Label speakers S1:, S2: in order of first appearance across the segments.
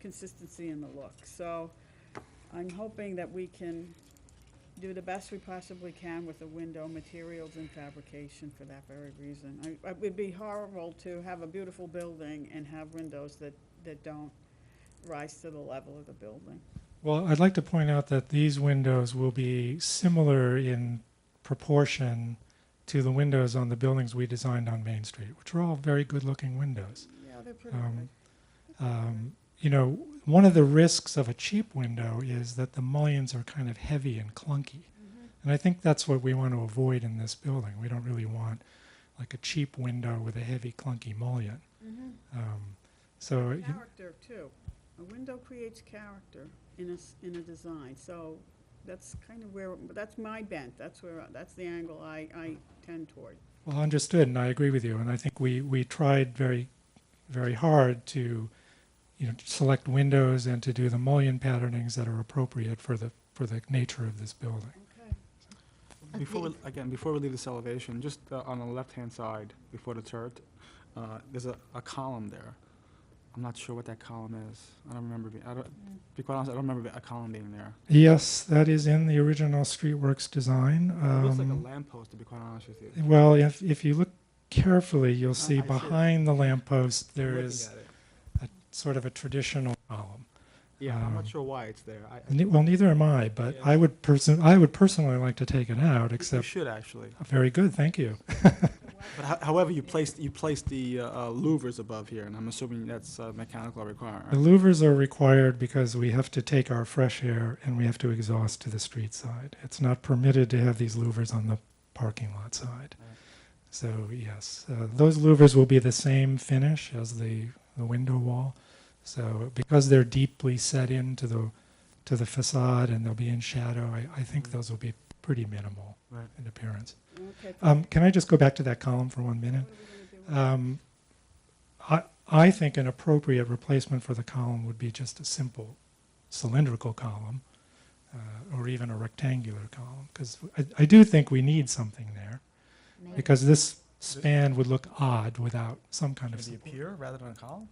S1: consistency in the look. So I'm hoping that we can do the best we possibly can with the window materials and fabrication for that very reason. I- It would be horrible to have a beautiful building and have windows that, that don't rise to the level of the building.
S2: Well, I'd like to point out that these windows will be similar in proportion to the windows on the buildings we designed on Main Street, which are all very good looking windows.
S1: Yeah, they're pretty good.
S2: Um, um, you know, one of the risks of a cheap window is that the mullions are kind of heavy and clunky. And I think that's what we want to avoid in this building. We don't really want like a cheap window with a heavy, clunky mullion. Um, so, you-
S1: Character, too. A window creates character in a, s- in a design, so that's kind of where, that's my bent, that's where, that's the angle I, I tend toward.
S2: Well, understood, and I agree with you. And I think we, we tried very, very hard to, you know, select windows and to do the mullion patternings that are appropriate for the for the nature of this building.
S1: Okay.
S3: I
S4: Before, we
S3: think-
S4: again, before we leave this elevation, just uh, on the left-hand side, before the turret, uh, there's a, a column there. I'm not sure what that column is. I don't remember, be- I don't, to be quite honest, I don't remember a column being there.
S2: Yes, that is in the original Streetworks design.
S4: It looks like a
S2: Um,
S4: lamppost, to be quite honest with you.
S2: well, if if you look carefully, you'll
S4: I-
S2: see
S4: I see it.
S2: behind the lamppost there
S4: Looking
S2: is
S4: at it.
S2: sort of a traditional column.
S4: Yeah, I'm
S2: um,
S4: not sure why it's there. I- I-
S2: Ne- Well, neither am I, but
S4: Yeah.
S2: I would person I would personally like to take it out.
S4: You
S2: Except,
S4: should, actually.
S2: very good, thank you.
S4: But ho- however, you placed, you placed the uh, uh, louvers above here, and I'm assuming that's a mechanical
S2: The
S4: requirement.
S2: louvers are required because we have to take our fresh air and we have to exhaust to the street side. It's not permitted to have these louvers on the parking lot side.
S4: Right.
S2: So yes, uh, those louvers will be the same finish as the, the window wall. So because they're deeply set into the to the facade and they'll be in shadow, I, I think those will be pretty minimal
S4: Mm. Right.
S2: in appearance.
S1: Okay.
S2: Um, can I just go back to that column for one minute?
S1: What are we gonna do with
S2: Um, I, I think an appropriate replacement for the column would be just a simple cylindrical column uh, or even a rectangular column because I, I do think we need something there
S3: Maybe.
S2: because this span would look odd without some kind of
S4: Should it be a
S2: support.
S4: pier rather than a column?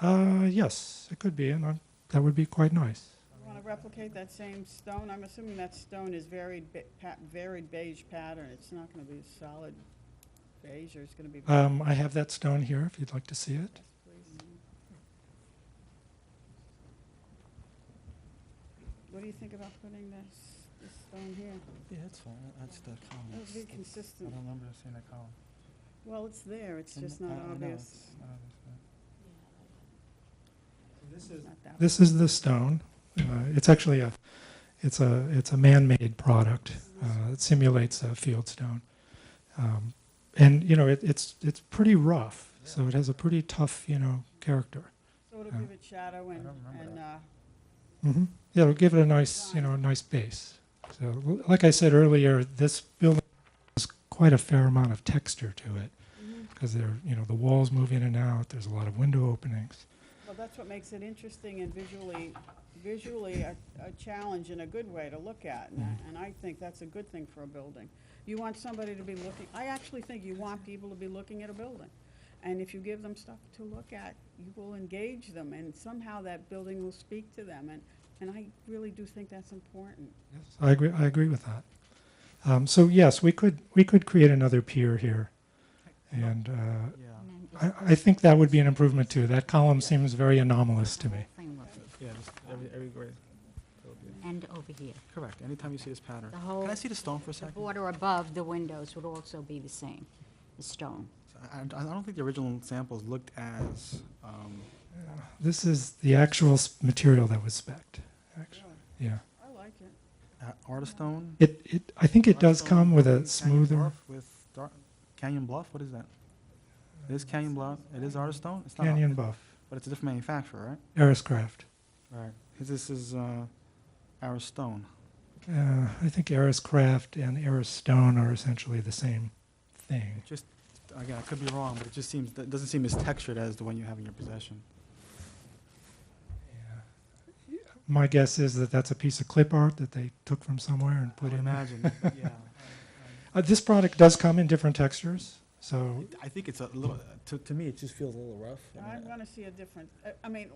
S2: Uh, yes, it could be, and I, that would be quite nice.
S1: You Want to replicate that same stone? I'm assuming that stone is varied, be- pa- varied beige pattern. It's not going to be solid beige, or it's going to be.
S2: Um, I have that stone here if you'd like to see it.
S1: What do you think about putting this, this stone here?
S3: Yeah, that's fine. That's the column.
S1: That would be
S3: That's- I
S1: consistent.
S3: don't remember seeing that column.
S1: Well, it's there, it's
S3: I kn-
S1: just not
S3: I- I know,
S1: obvious.
S3: it's not obvious, but-
S2: This is
S1: It's not that
S2: This is the stone. Uh, it's actually a, it's a, it's a man-made product. Uh, it simulates a field stone, um, and you know it, it's it's pretty rough. So it has a pretty tough you know character.
S1: So it'll give it shadow and,
S3: don't remember
S1: and,
S3: that.
S1: uh,
S2: hmm Yeah, it'll give it a nice you know a nice base. So l- like I said earlier, this building has quite a fair amount of texture to it
S1: mm-hmm.
S2: because they're you know the walls move in and out. There's a lot of window openings.
S1: well, that's what makes it interesting and visually, visually a, a challenge and a good way to look at. And I- And I think that's a good thing for a building. You want somebody to be looking, I actually think you want people to be looking at a building. And if you give them stuff to look at, you will engage them and somehow that building will speak to them. And, and I really do think that's important.
S2: Yes, I agree. I agree with that. Um, so yes, we could we could create another pier here, and uh,
S4: Yeah,
S3: And then
S2: I, I think that would be an improvement too. That column seems very anomalous
S3: it's-
S2: to
S3: the
S2: me.
S3: whole thing will
S4: yeah, just every, every grade. That would be-
S3: end over here.
S4: Correct, anytime you see this pattern.
S3: The whole,
S4: Can I see the stone for a
S3: the
S4: second?
S3: border above the windows would also be the same, the stone.
S4: I, I I don't think the original samples looked as, um,
S2: This is the actual s- material that was specced. Actually,
S1: Really,
S2: yeah.
S1: I like it.
S4: a- Artistone?
S2: It it I think it does
S4: Artistone
S2: come with
S4: Canyon
S2: a
S4: Bluff
S2: smoother
S4: With Dar- Canyon Bluff, what is that? It is Canyon Bluff, it is Artistone? It's not Ar-
S2: canyon buff.
S4: But it's a different manufacturer,
S2: Ariscraft.
S4: right? Right. This is, uh, Aristone.
S2: Uh, I think Ariscraft and Aristone are essentially the same thing.
S4: It just, again, I could be wrong, but it just seems, it doesn't seem as textured as the one you have in your possession.
S2: My guess is that that's a piece of clip art that they took from somewhere and
S4: I
S2: put
S4: would
S2: in. there.
S4: imagine, yeah.
S2: Uh, this product does come in different textures, so
S4: I think it's a little, to, to me, it just feels a little rough. uh, I mean,
S1: I want to see a different, I- I mean,